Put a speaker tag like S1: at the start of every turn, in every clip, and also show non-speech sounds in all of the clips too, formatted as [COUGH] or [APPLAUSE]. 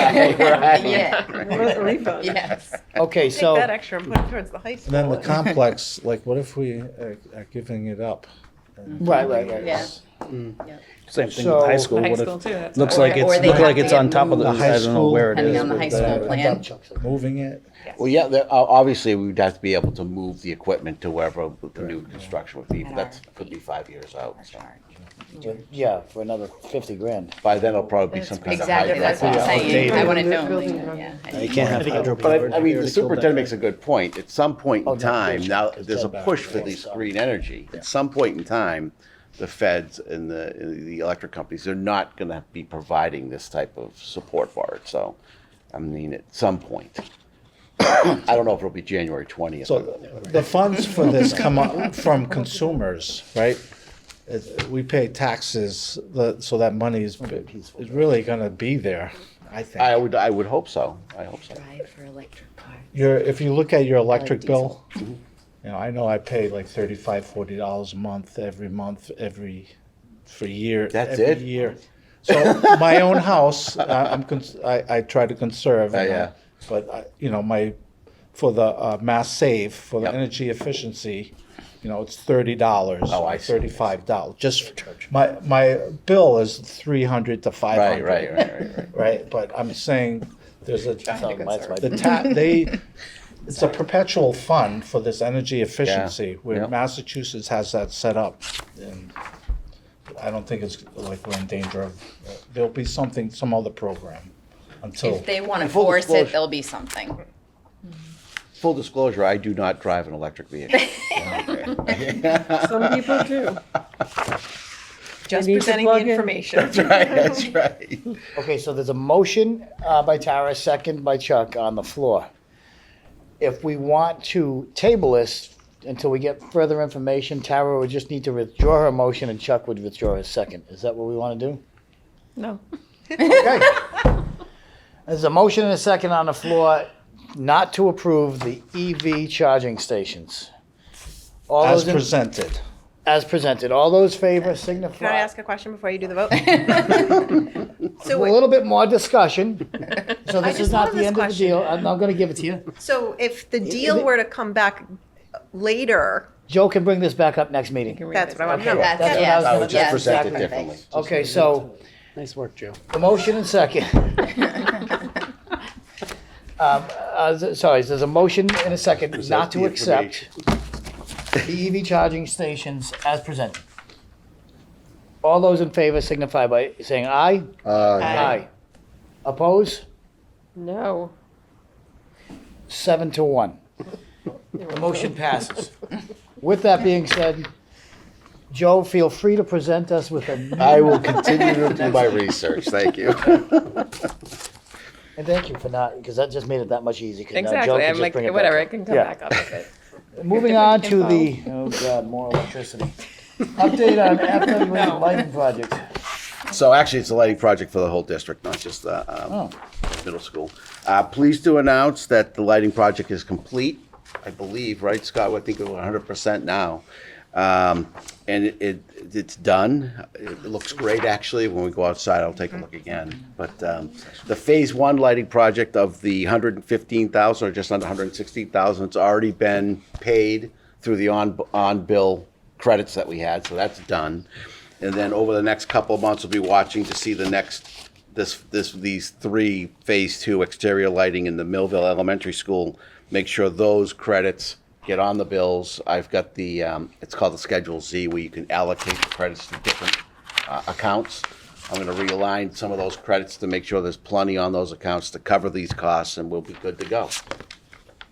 S1: [LAUGHS] Right.
S2: Yeah. [LAUGHS]
S3: A refund.
S2: Yes.
S1: Okay,
S3: Take that
S1: so,
S3: extra and put it towards the high
S4: And
S3: school.
S4: then the
S3: [LAUGHS]
S4: complex, like, what if we are are giving it up? And
S1: right, right, right.
S2: Yeah.
S5: Same thing with high
S1: So-
S5: school.
S3: High
S5: What
S3: school
S5: if,
S3: too. that's
S5: looks
S3: why.
S5: like
S2: Or-
S5: it's,
S2: or they
S5: look
S2: have
S5: like it's
S2: to
S5: on top of the,
S4: The high
S5: I don't know
S4: school-
S5: where it is.
S2: Depending on the
S5: but
S2: high
S5: they
S2: school
S5: have it.
S2: plan.
S4: Moving it?
S6: Well, yeah, there- o- obviously, we'd have to be able to move the equipment to wherever the new construction would be, but that's, could be five years out. so.
S1: But, Yeah, for another fifty grand.
S6: By then, it'll probably be some kind of high.
S2: Exactly, that's what I'm saying. I
S4: Outdated.
S2: want to know. yeah, I-
S5: You can't have. high-
S6: But I, I mean, the superintendent makes a good point. At some point
S1: Oh,
S6: in
S1: no,
S6: time,
S1: it's-
S6: now,
S1: it's
S6: there's a
S1: back,
S6: push for
S1: yeah,
S6: these
S1: sorry.
S6: green energy. At some point in time, the feds and the, the electric companies, they're not gonna be providing this type of support for it, so, I mean, at some point. [COUGHS] I don't know if it'll be January twentieth.
S4: So the funds for this come up from consumers, right? It- We pay taxes, the- so that money is, is really gonna be there, I
S6: I
S4: think.
S6: would, I would hope so, I hope so.
S2: Drive for electric car.
S4: Your, if you look at your electric bill,
S2: diesel.
S4: you know, I know I pay like thirty-five, forty dollars a month, every month, every, for year.
S6: That's
S4: every
S6: it?
S4: Year. So my own house, [LAUGHS] I- I'm, cons- I, I try to conserve.
S6: Yeah,
S4: you know,
S6: yeah.
S4: But, I- you know, my, for the uh, mass save, for the
S6: Yep.
S4: energy efficiency, you know, it's thirty dollars.
S6: Oh, I see.
S4: Thirty-five dollars, just, my, my bill is three hundred to five
S6: Right,
S4: hundred.
S6: right, right, right, right.
S4: Right, but I'm saying, there's a.
S1: Mine's my-
S4: The ta, they, it's a perpetual fund for this energy efficiency, where
S6: yeah.
S4: Massachusetts has that set up. and I don't think it's like we're in danger of, there'll be something, some other program until,
S2: If they want to
S6: Full
S2: force it,
S6: disclosure.
S2: there'll be something.
S6: Full disclosure, I do not drive an electric vehicle.
S2: [LAUGHS]
S6: [LAUGHS]
S3: Some people do. Just
S7: need to
S3: presenting the
S7: plug in.
S3: information.
S6: Right, that's right.
S1: Okay, so there's a motion uh, by Tara, second by Chuck on the floor. If we want to table this until we get further information, Tara would just need to withdraw her motion and Chuck would withdraw his second. Is that what we want to do?
S3: No. [LAUGHS]
S1: Okay. There's a motion and a second on the floor not to approve the EV charging stations. All
S4: as
S1: those, in-
S4: presented.
S1: as presented, all those favor signify.
S3: Can I ask a question before you do the vote?
S1: [LAUGHS]
S3: So,
S1: A
S3: wait,
S1: little bit more
S3: [LAUGHS]
S1: discussion. So this
S3: just
S1: is not
S3: love
S1: the
S3: this
S1: end of the
S3: question.
S1: deal. I'm, I'm gonna give it to you.
S3: so if the
S1: is
S3: deal
S1: it-
S3: were to come back later,
S1: Joe can bring this back up next meeting.
S3: that's what I want to
S1: Okay,
S3: know.
S1: that's what
S2: yeah.
S1: I was
S6: I
S1: gonna,
S6: would just
S2: Yes,
S6: present it
S2: exactly.
S6: differently.
S1: okay, so
S7: Nice work, Joe.
S1: the motion and
S3: [LAUGHS]
S1: second. Um, uh, s- sorry, there's a motion and a second not to
S6: the
S1: accept the EV charging stations as presented. All those in favor signify by saying aye.
S6: Uh,
S1: Aye. Oppose?
S7: No.
S1: Seven to one. The motion passes. With that being said, Joe, feel free to present us with a new
S6: I will continue to do
S2: [LAUGHS]
S6: my research, thank you.
S1: [LAUGHS] And thank you for not, because that just made it that much easier. 'cause now Joe
S3: Exactly,
S1: can
S3: I'm
S1: just
S3: like,
S1: bring it back
S3: whatever,
S1: up.
S3: it can come
S1: Yeah.
S3: back up if it.
S1: Moving on to the, oh God, more electricity. Update
S3: [LAUGHS]
S1: on FWA lighting project.
S6: So actually, it's a lighting project for the whole district, not just the um, middle school. Uh, Pleased to announce that the lighting project is complete, I believe, right, Scott? I think we're 100% now. Um, And it- it, it's done. It looks great, actually. When we go outside, I'll take a look again. But um, the Phase One lighting project of the 115,000, or just under 116,000, it's already been paid through the on on-bill credits that we had, so that's done. And then over the next couple of months, we'll be watching to see the next, this, this, these three Phase Two exterior lighting in the Millville Elementary School, make sure those credits get on the bills. I've got the, um, it's called the Schedule Z, where you can allocate the credits to different uh, accounts. I'm gonna realign some of those credits to make sure there's plenty on those accounts to cover these costs, and we'll be good to go.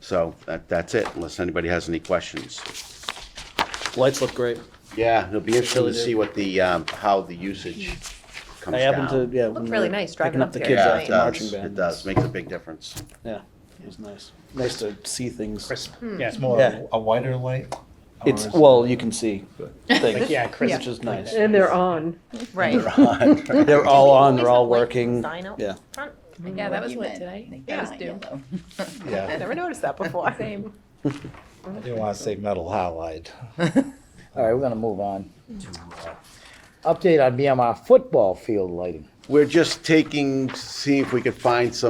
S6: So that, that's it, unless anybody has any questions.
S5: Lights look great.
S6: Yeah, it'll be interesting to see what the, um, how the usage comes down.
S5: I happened to, yeah.
S3: Looked really nice driving
S5: Picking
S3: up
S5: up the
S3: here
S5: kids
S3: tonight.
S6: Yeah, it
S5: after marching
S6: does,
S5: band.
S6: it does, makes a big difference.
S5: Yeah, it was nice. Nice to see things.
S4: It's more
S5: Yeah.
S4: a wider light. or
S5: It's,
S4: is it-
S5: well, you can see things,
S7: Yeah, Chris.
S5: which is nice.
S7: [LAUGHS] And they're on.
S3: Right.
S5: They're all on, they're
S3: There's a
S5: all
S3: white
S5: working.
S3: sign out
S5: Yeah.
S3: front.
S2: Yeah,
S3: that
S2: was
S3: lit
S2: today.
S3: Yeah.
S2: That was due.
S4: Yeah.
S3: Never noticed that before.
S4: I didn't want to say metal halide.
S1: All right, we're gonna move on. uh, Update on BMR football field lighting.
S6: We're just taking, see if we could find some